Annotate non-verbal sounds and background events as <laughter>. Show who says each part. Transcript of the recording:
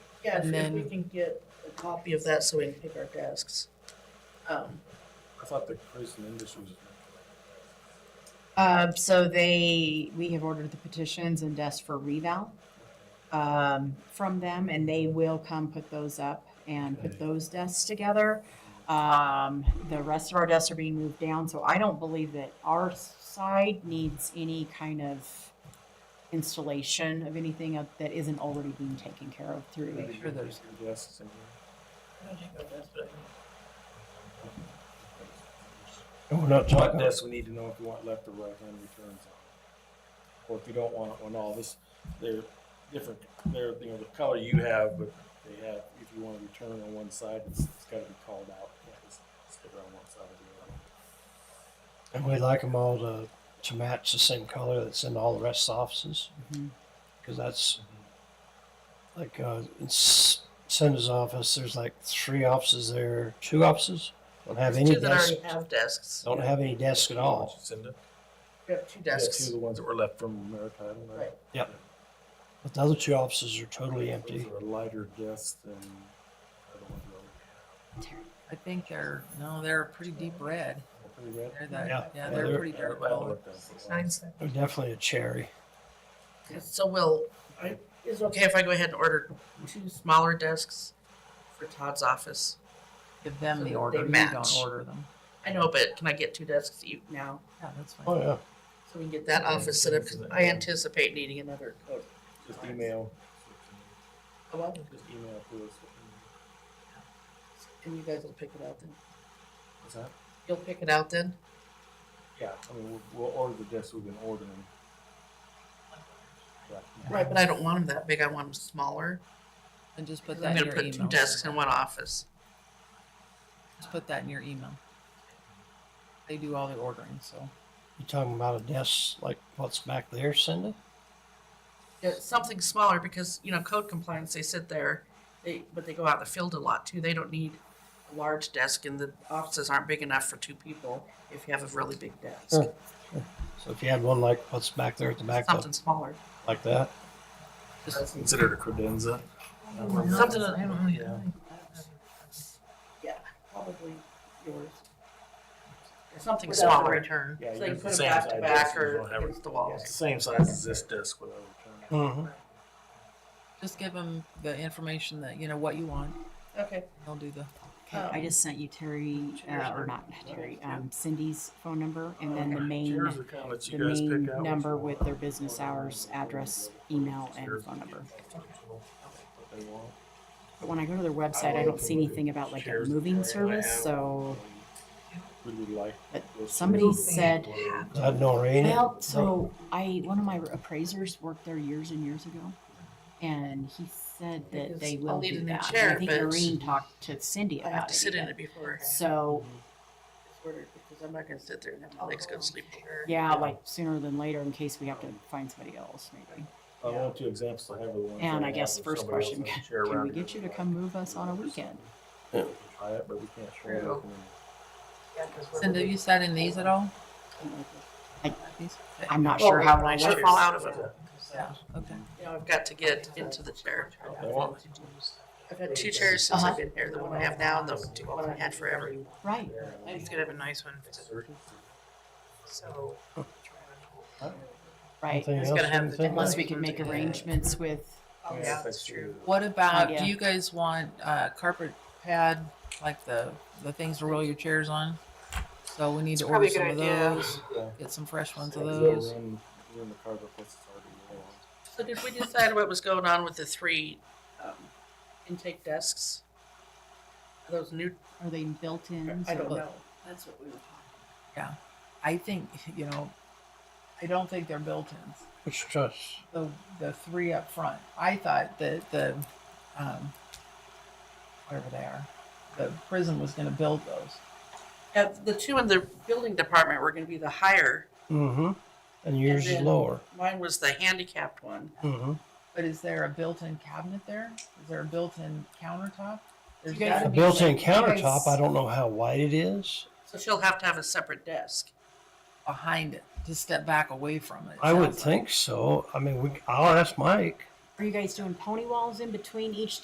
Speaker 1: Yeah, if-
Speaker 2: And
Speaker 1: if we
Speaker 2: then-
Speaker 1: can get a copy of that so we can pick our desks. Um,
Speaker 3: I thought the prison industry was.
Speaker 4: Um, so they, we have ordered the petitions and desks for reval, um, from them, and they will come put those up and put those desks together. Um, the rest of our desks are being moved down, so I don't believe that our side needs any kind of installation of anything of- that isn't already being taken care of through.
Speaker 2: Make sure there's-
Speaker 3: Yes. and-
Speaker 1: I don't think our desks, but I think-
Speaker 5: And we're not
Speaker 3: What
Speaker 5: talking,
Speaker 3: desk we need to know if you want left or right hand returns on. Or if you don't want it on all this, they're different, they're, you know, the color you have, but they have, if you want to return on one side, it's, it's gotta be called out. You can't just stick it on one side or the other.
Speaker 5: and we like them all to, to match the same color that's in all the rest of the offices.
Speaker 4: Mhm.
Speaker 5: Cause that's, like, uh, in S- Cinda's office, there's like three offices there, two offices, don't have
Speaker 1: There's
Speaker 5: any
Speaker 1: two that
Speaker 5: desks,
Speaker 1: already have desks.
Speaker 5: don't have any desks at all.
Speaker 3: Cinda?
Speaker 1: We have two
Speaker 3: Yeah, two
Speaker 1: desks.
Speaker 3: of the ones that were left from Maritime, right?
Speaker 1: Right.
Speaker 5: But the other two offices are totally empty.
Speaker 3: Those are lighter desks than the other ones. were.
Speaker 2: I think they're, no, they're a pretty deep red.
Speaker 3: Pretty red.
Speaker 2: They're that,
Speaker 5: Yeah.
Speaker 2: yeah,
Speaker 3: Yeah,
Speaker 2: they're pretty
Speaker 3: they're-
Speaker 2: dark
Speaker 3: I haven't
Speaker 2: colored.
Speaker 3: looked at them for a while.
Speaker 1: Nine cents.
Speaker 5: They're definitely a cherry.
Speaker 1: So will, I- is it okay if I go ahead and order two smaller desks for Todd's office?
Speaker 2: Give them
Speaker 1: So
Speaker 2: the
Speaker 1: that
Speaker 2: order,
Speaker 1: they
Speaker 2: you don't
Speaker 1: match.
Speaker 2: order them.
Speaker 1: I know, but can I get two desks each now?
Speaker 2: Yeah, that's
Speaker 5: Oh,
Speaker 2: fine.
Speaker 5: yeah.
Speaker 1: So we can get that office set up, 'cause I anticipate needing another coat.
Speaker 3: Just email,
Speaker 1: Oh, well,
Speaker 3: just email to us.
Speaker 1: And you guys will pick it out then.
Speaker 3: What's that?
Speaker 1: You'll pick it out then?
Speaker 3: Yeah, I mean, we'll, we'll order the desks we've been ordering. Yeah.
Speaker 1: Right, but I don't want them that big. I want them smaller.
Speaker 2: And just put
Speaker 1: 'cause I'm
Speaker 2: that in
Speaker 1: gonna
Speaker 2: your
Speaker 1: put two
Speaker 2: email.
Speaker 1: desks in one office.
Speaker 2: Just put that in your email. They do all the ordering, so.
Speaker 5: You talking about a desk like what's back there, Cindy?
Speaker 1: Yeah, something smaller because, you know, code compliance, they sit there, they, but they go out in the field a lot too. They don't need a large desk and the offices aren't big enough for two people if you have a really big desk.
Speaker 3: Oh,
Speaker 5: Sure. So if you had one like what's back there at the back,
Speaker 1: Something smaller.
Speaker 5: like that,
Speaker 3: That's considered a credenza.
Speaker 1: Something, that-
Speaker 3: Yeah.
Speaker 1: yeah, probably yours. Or Something
Speaker 4: Without the
Speaker 1: smaller. Return.
Speaker 3: Yeah,
Speaker 1: So you
Speaker 3: yours
Speaker 1: put
Speaker 3: is
Speaker 1: them
Speaker 3: the same
Speaker 1: back to
Speaker 3: size,
Speaker 1: back
Speaker 3: so you
Speaker 1: or
Speaker 3: don't have
Speaker 1: against
Speaker 3: it.
Speaker 1: the
Speaker 3: Yeah, It's the
Speaker 1: walls.
Speaker 3: same size as this desk without return.
Speaker 5: hmm
Speaker 2: Just give them the information that, you know, what you want.
Speaker 1: Okay.
Speaker 2: They'll do the,
Speaker 4: Okay, I just sent you Terry, uh, or not Terry, um, Cindy's phone number and then the main
Speaker 3: Here's the kind that
Speaker 4: the
Speaker 3: you guys
Speaker 4: main
Speaker 3: pick out.
Speaker 4: number with their business hours, address, email, and phone number.
Speaker 3: They want.
Speaker 4: But when I go to their website, I don't see anything about like a
Speaker 3: Shares
Speaker 4: moving
Speaker 3: that I have.
Speaker 4: service, so,
Speaker 3: Really like.
Speaker 4: but
Speaker 3: those
Speaker 4: somebody
Speaker 3: shares.
Speaker 4: said,
Speaker 5: Is that Noreen?
Speaker 4: well, so I, one of my appraisers worked there years and years ago. And he said that they
Speaker 1: I'll
Speaker 4: will
Speaker 1: need a
Speaker 4: do
Speaker 1: new
Speaker 4: that.
Speaker 1: chair,
Speaker 4: And I think
Speaker 1: but
Speaker 4: Noreen talked to Cindy
Speaker 1: I have
Speaker 4: about
Speaker 1: to sit
Speaker 4: it.
Speaker 1: in
Speaker 4: even.
Speaker 1: it before.
Speaker 4: So,
Speaker 1: it's ordered because I'm not gonna sit there and have my legs go to sleep.
Speaker 4: yeah, like sooner than later in case we have to find somebody else maybe.
Speaker 3: I want two examples. I have the one.
Speaker 4: And I guess first question, <laughs> Can we get you to come move us on a weekend?
Speaker 3: Try it, but we can't. show it.
Speaker 1: True.
Speaker 2: Cindy, have you sat in these at all? These? Okay.
Speaker 4: I'm not sure how
Speaker 1: I
Speaker 4: long.
Speaker 1: should fall out of it.
Speaker 2: Yeah, okay.
Speaker 1: You know, I've got to get into the chair.
Speaker 3: They want.
Speaker 1: I've had two chairs since I've
Speaker 4: Uh-huh.
Speaker 1: been here, the one I have now and the two- one I had forever.
Speaker 4: Right.
Speaker 1: He's gonna have a nice one. So.
Speaker 4: Right.
Speaker 5: Anything
Speaker 1: It's
Speaker 5: else
Speaker 1: gonna
Speaker 5: you
Speaker 1: have
Speaker 5: can
Speaker 1: to-
Speaker 5: think of?
Speaker 4: Unless we could make arrangements with,
Speaker 1: oh, Yeah, that's true.
Speaker 2: What about,
Speaker 1: Oh,
Speaker 4: Idea.
Speaker 2: do you guys want uh, carpet pad, like the, the things to roll your chairs on? So we need to
Speaker 1: probably
Speaker 2: order
Speaker 1: a
Speaker 2: some
Speaker 1: good
Speaker 2: of
Speaker 1: idea.
Speaker 2: those, get some fresh ones of
Speaker 3: Yeah,
Speaker 2: those.
Speaker 3: we're in- we're in the car, but what's already there.
Speaker 1: So <laughs> did we decide what was going on with the three um, intake desks? Are those new?
Speaker 4: are they built in?
Speaker 1: I
Speaker 4: so-
Speaker 1: don't know.
Speaker 4: That's what we were talking.
Speaker 2: I think, you know, I don't think they're built-ins.
Speaker 5: Which trust?
Speaker 2: the the three up front. I thought that the um, whatever they are, the prison was going to build those.
Speaker 1: Uh, the two in the building department were gonna be the higher.
Speaker 5: Mm-hmm. And yours is
Speaker 1: then-
Speaker 5: lower.
Speaker 1: Mine was the handicapped one.
Speaker 5: Mm-hmm.
Speaker 2: But is there a built-in cabinet there? Is there a built-in countertop? There's
Speaker 1: You guys-
Speaker 2: gotta
Speaker 5: A
Speaker 2: be
Speaker 5: built-in
Speaker 2: something
Speaker 5: countertop, I don't know how wide it is.
Speaker 1: So she'll have to have a separate desk.
Speaker 2: behind it to step back away from it. it
Speaker 5: I would
Speaker 2: sounds like.
Speaker 5: think so. I mean, we, I'll ask Mike.
Speaker 4: Are you guys doing pony walls in between each